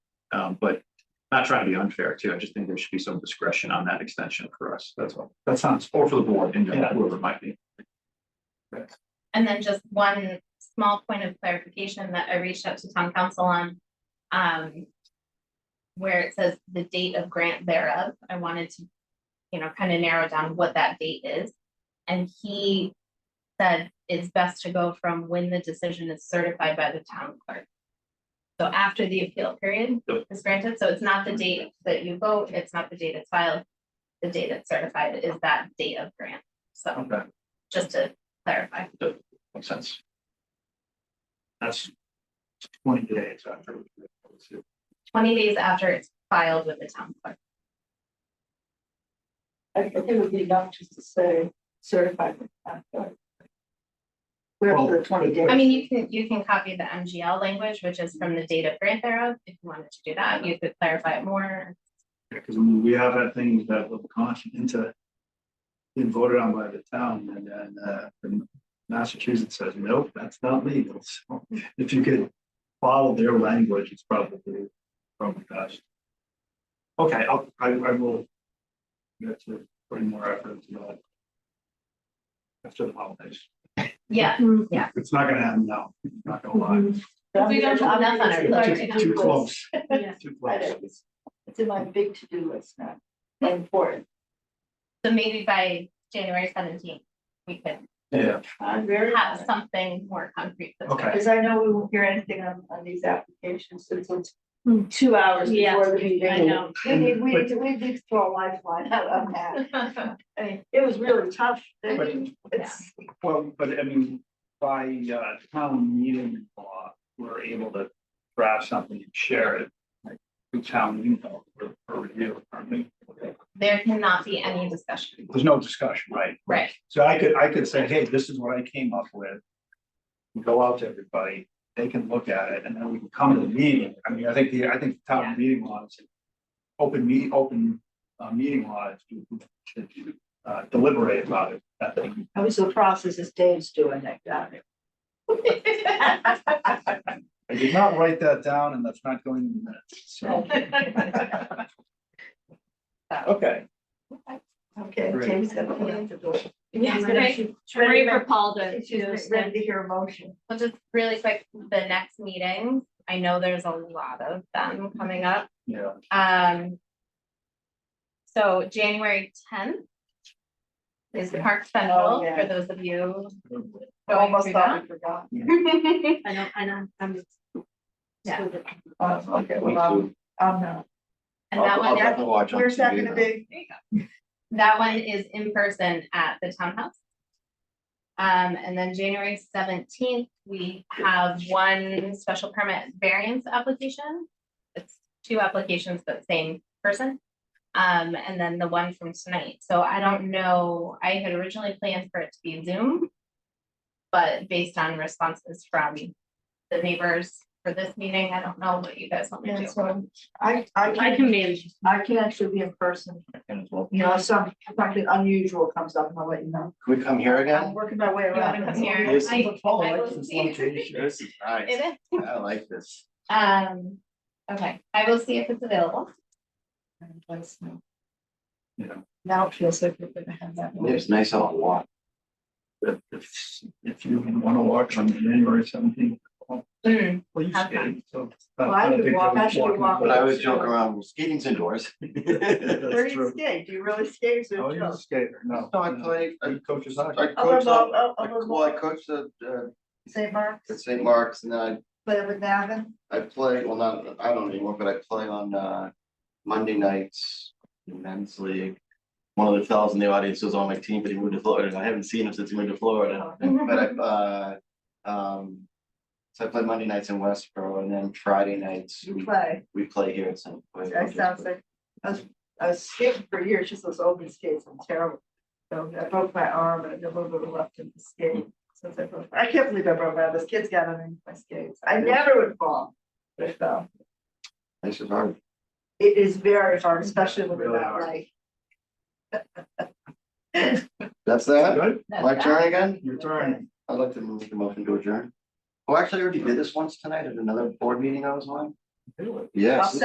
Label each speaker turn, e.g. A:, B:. A: Um, but not trying to be unfair too. I just think there should be some discretion on that extension for us. That's all. That sounds, or for the board and
B: Yeah.
A: whoever it might be.
C: And then just one small point of clarification that I reached out to town council on. Um. Where it says the date of grant thereof, I wanted to, you know, kind of narrow down what that date is. And he said it's best to go from when the decision is certified by the town clerk. So after the appeal period
A: Yep.
C: is granted, so it's not the date that you vote, it's not the date it's filed. The date it's certified is that date of grant, so
A: Okay,
C: just to clarify.
A: makes sense. That's twenty days after.
C: twenty days after it's filed with the town clerk.
D: I think it would be enough just to say certified. with that, but- We're up to the twenty days.
C: I mean, you can, you can copy the MGL language, which is from the date of grant thereof, if you wanted to do that, you could clarify it more.
E: Because we have had things that were gone into. Been voted on by the town and then uh and Massachusetts says, nope, that's not legal. So if you could follow their language, it's probably probably best. Okay, I'll I I will. Get to putting more effort into that. After the holidays.
C: Yeah, yeah.
E: It's not gonna happen now, not gonna lie.
C: We don't have enough on our plate.
D: Obviously,
E: Too- Too close,
D: Yeah.
E: too
D: But
E: close.
D: it's it's in my big to-do list now, and important.
C: So maybe by January seventeenth, we could
A: Yeah,
D: I'm very.
C: have something more concrete. for the
A: Okay.
D: Because I know we won't hear anything on, on these applications until
C: Hmm.
D: two hours
F: Yeah,
D: before the meeting.
F: I know.
D: We need, we need, to- we need to throw a lifeline out on that.
C: summer.
D: I mean, it was really tough.
E: But-
D: It's,
E: Well, but I mean, by uh town meeting law, we're able to draft something and share it. like, To town, you know, for for review, I mean,
C: There cannot be any discussion,
E: there's no discussion, right?
C: right?
E: So I could, I could say, hey, this is what I came up with. Go out to everybody, they can look at it, and then we can come to the meeting, I mean, I think the, I think the town meeting law is. Open me, open uh meeting law is to to, uh deliberate about it, that thing.
D: I was the process is Dave's doing uh, that, got it.
E: I did not write that down and that's not going in the minutes, so. Okay,
D: Okay,
E: Great.
D: Dave's gonna open up the door.
F: Yeah,
D: Ready
F: right.
D: to-
F: Ready for Paul to, to
D: She's
F: send.
D: ready to hear a motion.
C: Well, just really quick, the next meeting, I know there's a lot of them coming up,
E: yeah,
C: Um. So January tenth is the Park Central,
D: Oh, yeah.
C: for those of you.
D: I almost
C: going
D: thought I forgot.
C: through that.
F: I know, I know, I'm.
C: Yeah.
D: Oh, okay, well, I'm, I'm not.
C: And that
A: I'll- I'll
C: one,
A: have to watch on
D: Where's that
A: TV
D: gonna
A: then.
D: be?
C: that one is in person at the townhouse. Um, and then January seventeenth, we have one special permit variance application. It's two applications, but same person. Um, and then the one from tonight. So I don't know, I had originally planned for it to be Zoom. But based on responses from the neighbors for this meeting, I don't know what you guys want me to
D: And
C: do.
D: so I, I
F: I
D: can,
F: can manage.
D: I can actually be in person,
A: And as well.
D: you know, if some, something unusual comes up, I'll let you know.
A: Can we come here
D: I'm working my way
C: You wanna
D: around.
C: come here?
E: This is
C: I-
E: what Paul
C: I will
E: likes, this
C: see.
E: location.
A: This is nice.
C: It is.
A: I like this.
C: Um, okay, I will see if it's available.
D: And let's know.
E: Yeah.
D: Now it feels like we're gonna have that. one.
A: It's nice on a lot.
E: If if if you want to watch on January seventeenth,
C: Mm,
E: please
C: Okay.
E: stay, so.
D: Well, I could walk- I should walk.
A: But I always joke around, skating's indoors. No,
D: Where
E: That's
D: do you
E: true.
D: skate? Do you really skate? Is it Oh,
E: Oh, you're a
D: just?
E: skater, no.
A: I played, I
E: You coach is
A: I
E: not.
A: coached,
D: Other
A: uh,
D: Bob,
A: I-
D: other
A: well, I
D: Bob,
A: coached at, uh,
D: St. Mark's,
A: at St. Mark's and then
D: play with Navin.
A: I, I play, well, not, I don't anymore, but I play on, uh, Monday nights, in men's league. One of the fellows in the audience was on my team, but he moved to Florida. and I haven't seen him since he moved to Florida. But I, uh, um, so I play Monday nights in Westboro and then Friday nights,
D: You
A: we,
D: play.
A: we play here at St.
D: That sounds like, I was, I was skating for years, just those open skates, I'm terrible. So I broke my arm and I never been left in the skate. Since I broke, oh, I can't believe I broke my, arm. those kids got underneath my skates. I never would fall. But I fell.
A: This is hard.
D: It is very hard, especially when you're
E: Really
D: that
E: hard.
D: way.
A: That's that?
E: Good,
C: that's
A: My
C: that.
A: turn again?
E: your turn.
A: I'd like to move the motion to adjourn. Oh, actually, I already did this once tonight at another board meeting I was on.
E: Do it.
A: Yes.